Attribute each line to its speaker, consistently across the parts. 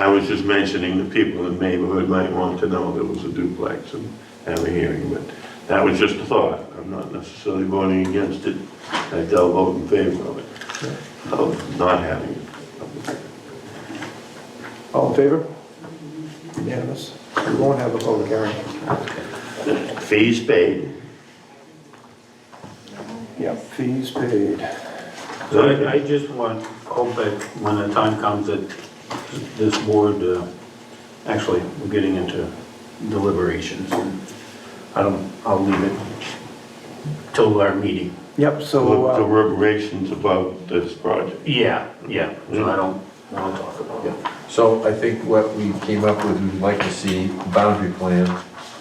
Speaker 1: I was just mentioning the people in the neighborhood might want to know there was a duplex and have a hearing, but that was just a thought. I'm not necessarily voting against it, I will vote in favor of it, of not having it.
Speaker 2: All in favor? Unanimous. We won't have a public hearing.
Speaker 1: Fees paid.
Speaker 2: Yep, fees paid.
Speaker 3: So I, I just want, hope that when the time comes that this board, uh, actually, we're getting into deliberations. and I don't, I'll leave it till our meeting.
Speaker 2: Yep, so,
Speaker 1: The
Speaker 2: uh,
Speaker 1: deliberations about this project.
Speaker 3: Yeah, yeah, so I don't wanna talk about it.
Speaker 4: So I think what we came up with, we'd like to see boundary plan.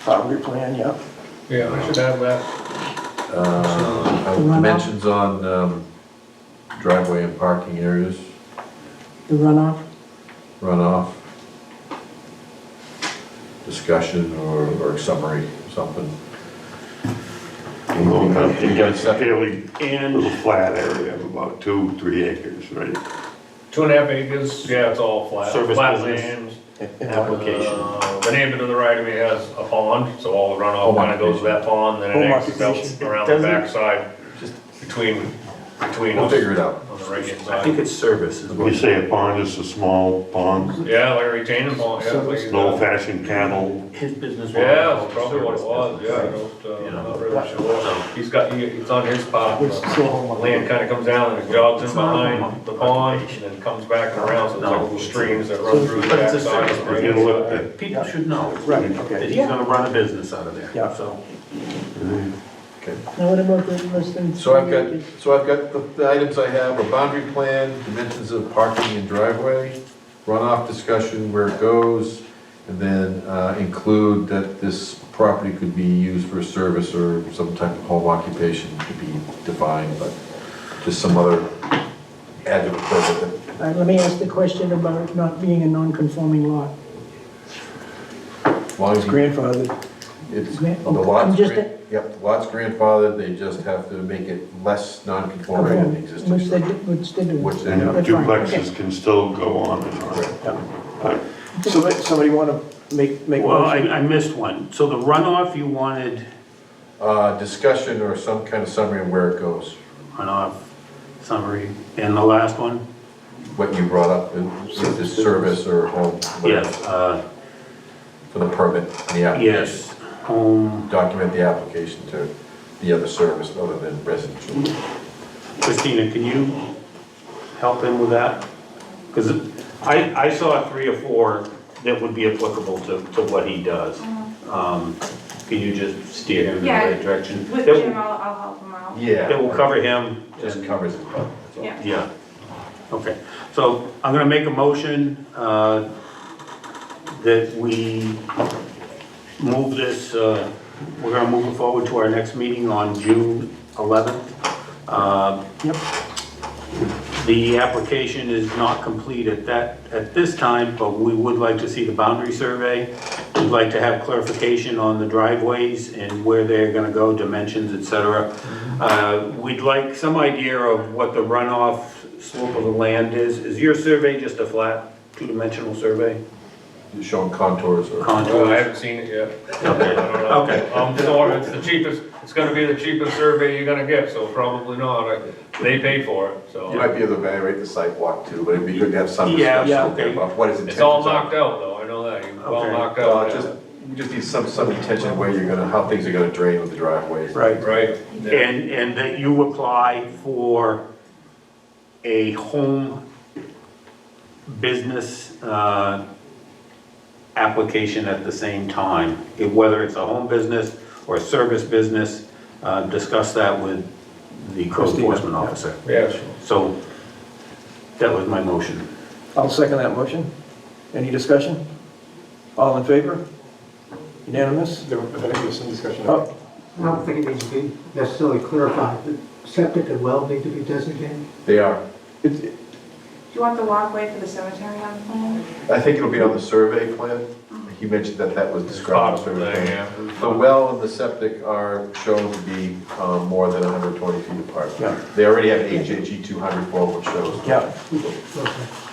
Speaker 2: boundary plan, yep.
Speaker 5: Yeah, I should have that.
Speaker 4: uh,
Speaker 6: The runoff?
Speaker 4: Dimensions on um, driveway and parking areas,
Speaker 6: The runoff?
Speaker 4: runoff. Discussion or, or summary, something.
Speaker 2: Mm-hmm.
Speaker 1: It gets
Speaker 4: Yeah.
Speaker 1: fairly, and a flat area of about two, three acres, right?
Speaker 5: Two and a half acres, yeah, it's all flat,
Speaker 3: Service
Speaker 5: flat
Speaker 3: business.
Speaker 5: land.
Speaker 3: Application.
Speaker 5: Uh, The neighbor to the right of me has a pond, so all the runoff
Speaker 4: Home
Speaker 5: kinda goes to that pond, then it
Speaker 2: Home
Speaker 5: exits out
Speaker 2: occupation.
Speaker 5: around the
Speaker 3: Doesn't-
Speaker 5: backside, between, between
Speaker 4: We'll
Speaker 5: us
Speaker 4: figure it out.
Speaker 5: on the right hand
Speaker 3: I think
Speaker 5: side.
Speaker 3: it's service is what.
Speaker 1: You say a pond is a small pond,
Speaker 5: Yeah, like a retaining pond, yeah. like,
Speaker 1: an
Speaker 5: uh,
Speaker 1: old-fashioned cattle
Speaker 3: His business.
Speaker 5: Yeah, that's probably what it was, yeah, I don't,
Speaker 3: You
Speaker 5: uh,
Speaker 3: know.
Speaker 5: not really sure. He's got, he, it's on his part.
Speaker 2: Which is
Speaker 5: but
Speaker 2: still home on
Speaker 5: Land kinda comes down and it jogs in
Speaker 3: It's not
Speaker 5: behind
Speaker 3: home
Speaker 5: the pond, and then comes back and around, so it's like
Speaker 3: No.
Speaker 5: little streams that run through the
Speaker 3: But it's a
Speaker 5: backside. of the
Speaker 3: service
Speaker 5: right-hand
Speaker 1: business.
Speaker 5: side.
Speaker 1: Yeah.
Speaker 3: People should know.
Speaker 2: Right,
Speaker 3: That
Speaker 2: okay.
Speaker 3: he's gonna run a business out of there,
Speaker 2: Yeah.
Speaker 3: so.
Speaker 4: Okay.
Speaker 6: Now what about the listing?
Speaker 4: So I've got, so I've got the- the items I have, a boundary plan, dimensions of parking and driveway, runoff discussion, where it goes, and then uh, include that this property could be used for service or some type of home occupation to be defined, but just some other adjective that
Speaker 6: All right, Uh, let me ask the question about it not being a non-conforming lot.
Speaker 4: as long as
Speaker 2: It's
Speaker 4: you-
Speaker 2: grandfathered.
Speaker 4: it's, the
Speaker 6: Grand- okay, oh, I'm
Speaker 4: lot's,
Speaker 6: just-
Speaker 4: gran- yep, the lot's grandfathered, they just have to make it less non-conforming than the existing
Speaker 6: Which they,
Speaker 4: structure.
Speaker 6: do- which they do.
Speaker 4: Which they
Speaker 1: And
Speaker 4: have.
Speaker 6: That's fine,
Speaker 1: duplexes
Speaker 6: okay.
Speaker 1: can still go on and on.
Speaker 2: Yeah.
Speaker 1: But
Speaker 2: Somebody, somebody want to make, make a
Speaker 3: Well, I,
Speaker 2: motion?
Speaker 3: I missed one. So the runoff you wanted,
Speaker 4: uh, discussion or some kind of summary of where it goes,
Speaker 3: runoff summary, and the last one?
Speaker 4: what you brought up, is this service or home, whatever,
Speaker 3: Yes, uh,
Speaker 4: for the permit, and the application.
Speaker 3: yes, Um, home,
Speaker 4: Document the application to the other service other than residential.
Speaker 3: Christina, can you help him with that? Because I, I saw three or four that would be applicable to, to what he does. Um, Can you just steer him in the
Speaker 7: Mm-hmm. Yeah.
Speaker 3: right direction?
Speaker 7: With
Speaker 3: That-
Speaker 7: Jim, I'll, I'll help him out.
Speaker 4: Yeah.
Speaker 3: That will cover him,
Speaker 4: Just
Speaker 3: and-
Speaker 4: covers it, that's all.
Speaker 7: Yeah.
Speaker 3: yeah, okay. So I'm gonna make a motion, uh, that we move this, uh, we're gonna move it forward to our next meeting on June eleventh. Uh,
Speaker 2: Yep.
Speaker 3: the application is not complete at that, at this time, but we would like to see the boundary survey. We'd like to have clarification on the driveways and where they're gonna go, dimensions, et cetera. Uh, We'd like some idea of what the runoff slope of the land is. Is your survey just a flat, two-dimensional survey?
Speaker 4: You're Showing contours or.
Speaker 3: Contour?
Speaker 5: Well, I haven't seen it yet. I
Speaker 3: Okay.
Speaker 5: don't know.
Speaker 3: Okay.
Speaker 5: Um, so it's the cheapest, it's gonna be the cheapest survey you're gonna get, so probably not, I- they paid for it,
Speaker 4: You
Speaker 5: so.
Speaker 4: might be able to evaluate the sidewalk too, but it'd be good to have some
Speaker 3: Yeah, yeah,
Speaker 4: discussion
Speaker 3: okay.
Speaker 4: about what is intended.
Speaker 5: It's all knocked out though, I know that, it's all
Speaker 3: Okay.
Speaker 5: knocked
Speaker 4: Uh,
Speaker 5: out,
Speaker 4: just,
Speaker 5: yeah.
Speaker 4: you just need some, some intention where you're gonna, how things are gonna drain with the driveways.
Speaker 2: Right,
Speaker 5: right? yeah.
Speaker 3: And, and that you apply for a home business, uh, application at the same time. It- Whether it's a home business or a service business, uh, discuss that with the code
Speaker 2: Christina,
Speaker 3: enforcement
Speaker 2: yeah.
Speaker 3: officer.
Speaker 5: Yeah, sure.
Speaker 3: So that was my motion.
Speaker 2: I'll second that motion. Any discussion? All in favor? Unanimous?
Speaker 8: There was, I think there's some discussion.
Speaker 2: Oh,
Speaker 9: I don't think it needs to be necessarily clarified, that septic and well need to be designated.
Speaker 4: They are.
Speaker 2: it-
Speaker 7: Do you want the walkway for the cemetery on the plan?
Speaker 4: I think it'll be on the survey plan. He mentioned that that was described on the survey plan.
Speaker 5: Yeah.
Speaker 4: The well and the septic are shown to be um, more than 120 feet apart.
Speaker 2: Yeah.
Speaker 4: They already have HHE 200 well, which shows.
Speaker 2: Yeah,
Speaker 9: Okay.